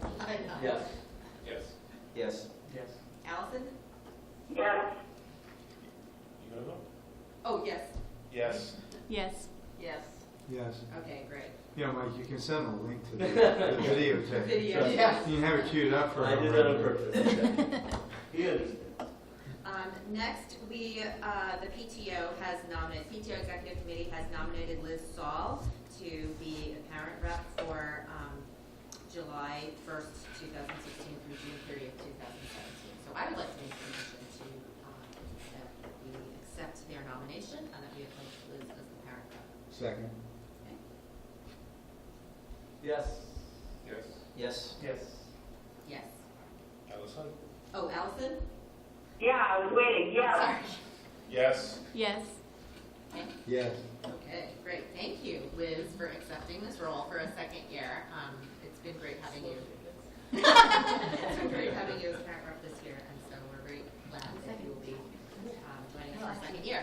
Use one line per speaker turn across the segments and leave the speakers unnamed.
Yes.
Yes.
Yes.
Yes.
Allison?
yes,
You gonna vote?
Oh, yes,
Yes.
Yes.
yes.
Yes.
Okay, great.
Yeah, Mike, you can send a link to the the videotape.
Video,
You
yes.
can have it queued up for.
I did that on purpose.
He is.
Um, next, we, uh, the PTO has nominated, PTO Executive Committee has nominated Liz Saul to be a parent rep for, um, July first, two thousand sixteen through June thirtieth, two thousand seventeen. So I would like to make a motion to, um, that we accept their nomination and that we appoint Liz as the parent rep.
Second.
Yes.
Yes.
Yes.
Yes.
Yes.
Allison?
Oh, Allison?
yeah, I was waiting, yes,
Sorry.
Yes.
Yes.
Yes.
Okay, great. Thank you, Liz, for accepting this role for a second year. Um, it's been great having you. It's been great having you as parent rep this year, and so we're very glad that you will be um, joining us for a second year.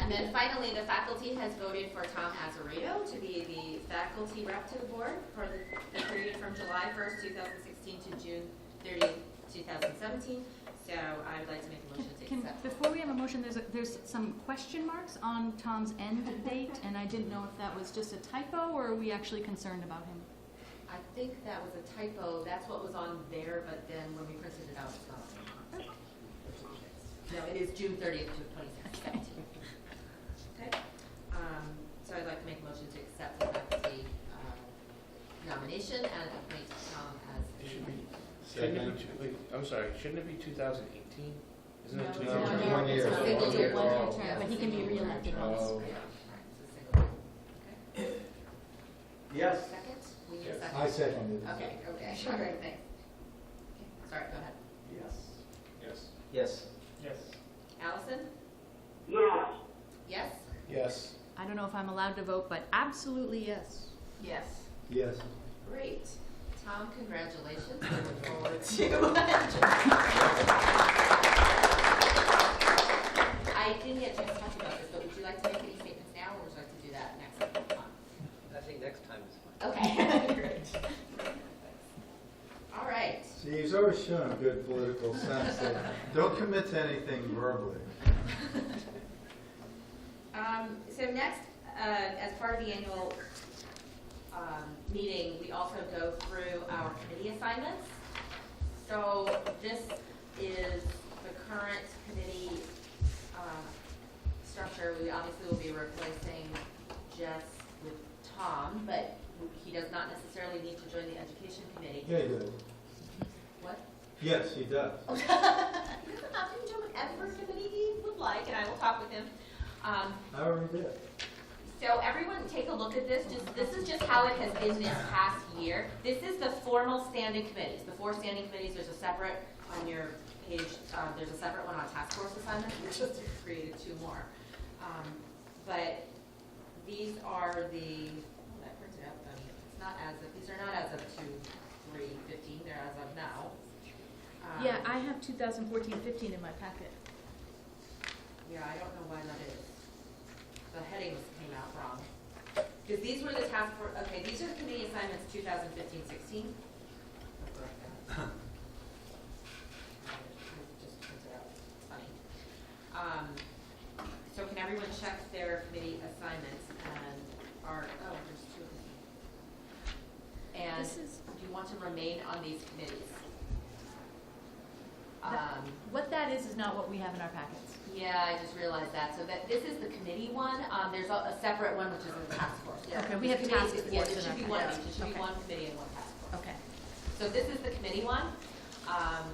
And then finally, the faculty has voted for Tom Azarito to be the faculty rep to the board for the- the period from July 1st, 2016 to June 30th, 2017. So I would like to make a motion to
Can,
accept.
before we have a motion, there's, a- there's some question marks on Tom's end date, and I didn't know if that was just a typo, or are we actually concerned about him?
I think that was a typo, that's what was on there, but then when we printed it out, it's not. No, it is June thirtieth to twenty seventeen. Okay, um, so I'd like to make a motion to accept the faculty, uh, nomination and appoint Tom as. the-
It should be, shouldn't it be, two- wait, I'm sorry, shouldn't it be 2018? Isn't it
No,
2018?
no, One
it's
year.
a single
One year.
One-year term,
Yeah,
but he can be
single year.
reelected once.
Oh.
Yeah, right, it's a single year. Okay.
Yes.
Second, we need a
Yes.
second.
I seconded it.
Okay, okay, all right, thanks. Okay, Sorry, go ahead.
Yes.
Yes.
Yes.
Yes.
Allison?
yes,
Yes?
Yes.
I don't know if I'm allowed to vote, but absolutely yes.
Yes.
Yes.
Great. Tom, congratulations. We look forward to. I didn't get a chance to talk about this, but would you like to make any statements now, or would you like to do that next month?
I think next time is fine.
Okay. Great. All right.
See, he's always shown a good political sense that don't commit to anything verbally.
Um, so next, uh, as part of the annual, um, meeting, we also go through our committee assignments. So this is the current committee, um, structure. We obviously will be replacing Jess with Tom, but he does not necessarily need to join the education committee.
Yeah, he does.
What?
Yes, he does.
He doesn't have to join whatever committee he would like, and I will talk with him. Um,
I already did.
So everyone, take a look at this, just, this is just how it has been this past year. This is the formal standing committees, the four standing committees, there's a separate on your page, um, there's a separate one on task force assignments, we just created two more. Um, but these are the, oh, that printed out, funny. it's not as of, these are not as of two, three, fifteen, they're as of now. Um,
Yeah, I have 2014-15 in my packet.
Yeah, I don't know why that is. The headings came out wrong. Because these were the task for, okay, these are committee assignments 2015, 16. Just printed out. Funny. Um, So can everyone check their committee assignments and are, oh, there's two of them. And
This is-
do you want to remain on these committees?
That-
Um,
What that is, is not what we have in our packets.
yeah, I just realized that. So that, this is the committee one. Um, there's a, a separate one, which is the task force. Yeah,
Okay, we
the
have
committee-
task
Yeah,
force
there
in
should
our
be one,
packets.
there should be
Okay.
one committee and one task force.
Okay.
So this is the committee one. Um,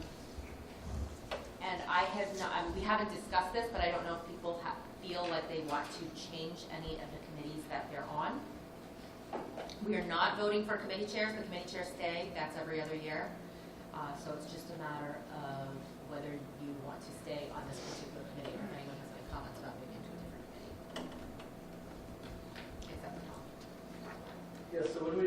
and I have not, um, we haven't discussed this, but I don't know if people have, feel like they want to change any of the committees that they're on. We are not voting for committee chairs, the committee chairs stay, that's every other year. Uh, so it's just a matter of whether you want to stay on this particular committee, or if anyone has any comments about moving into a different committee. Except for Tom.
Yeah, so what do we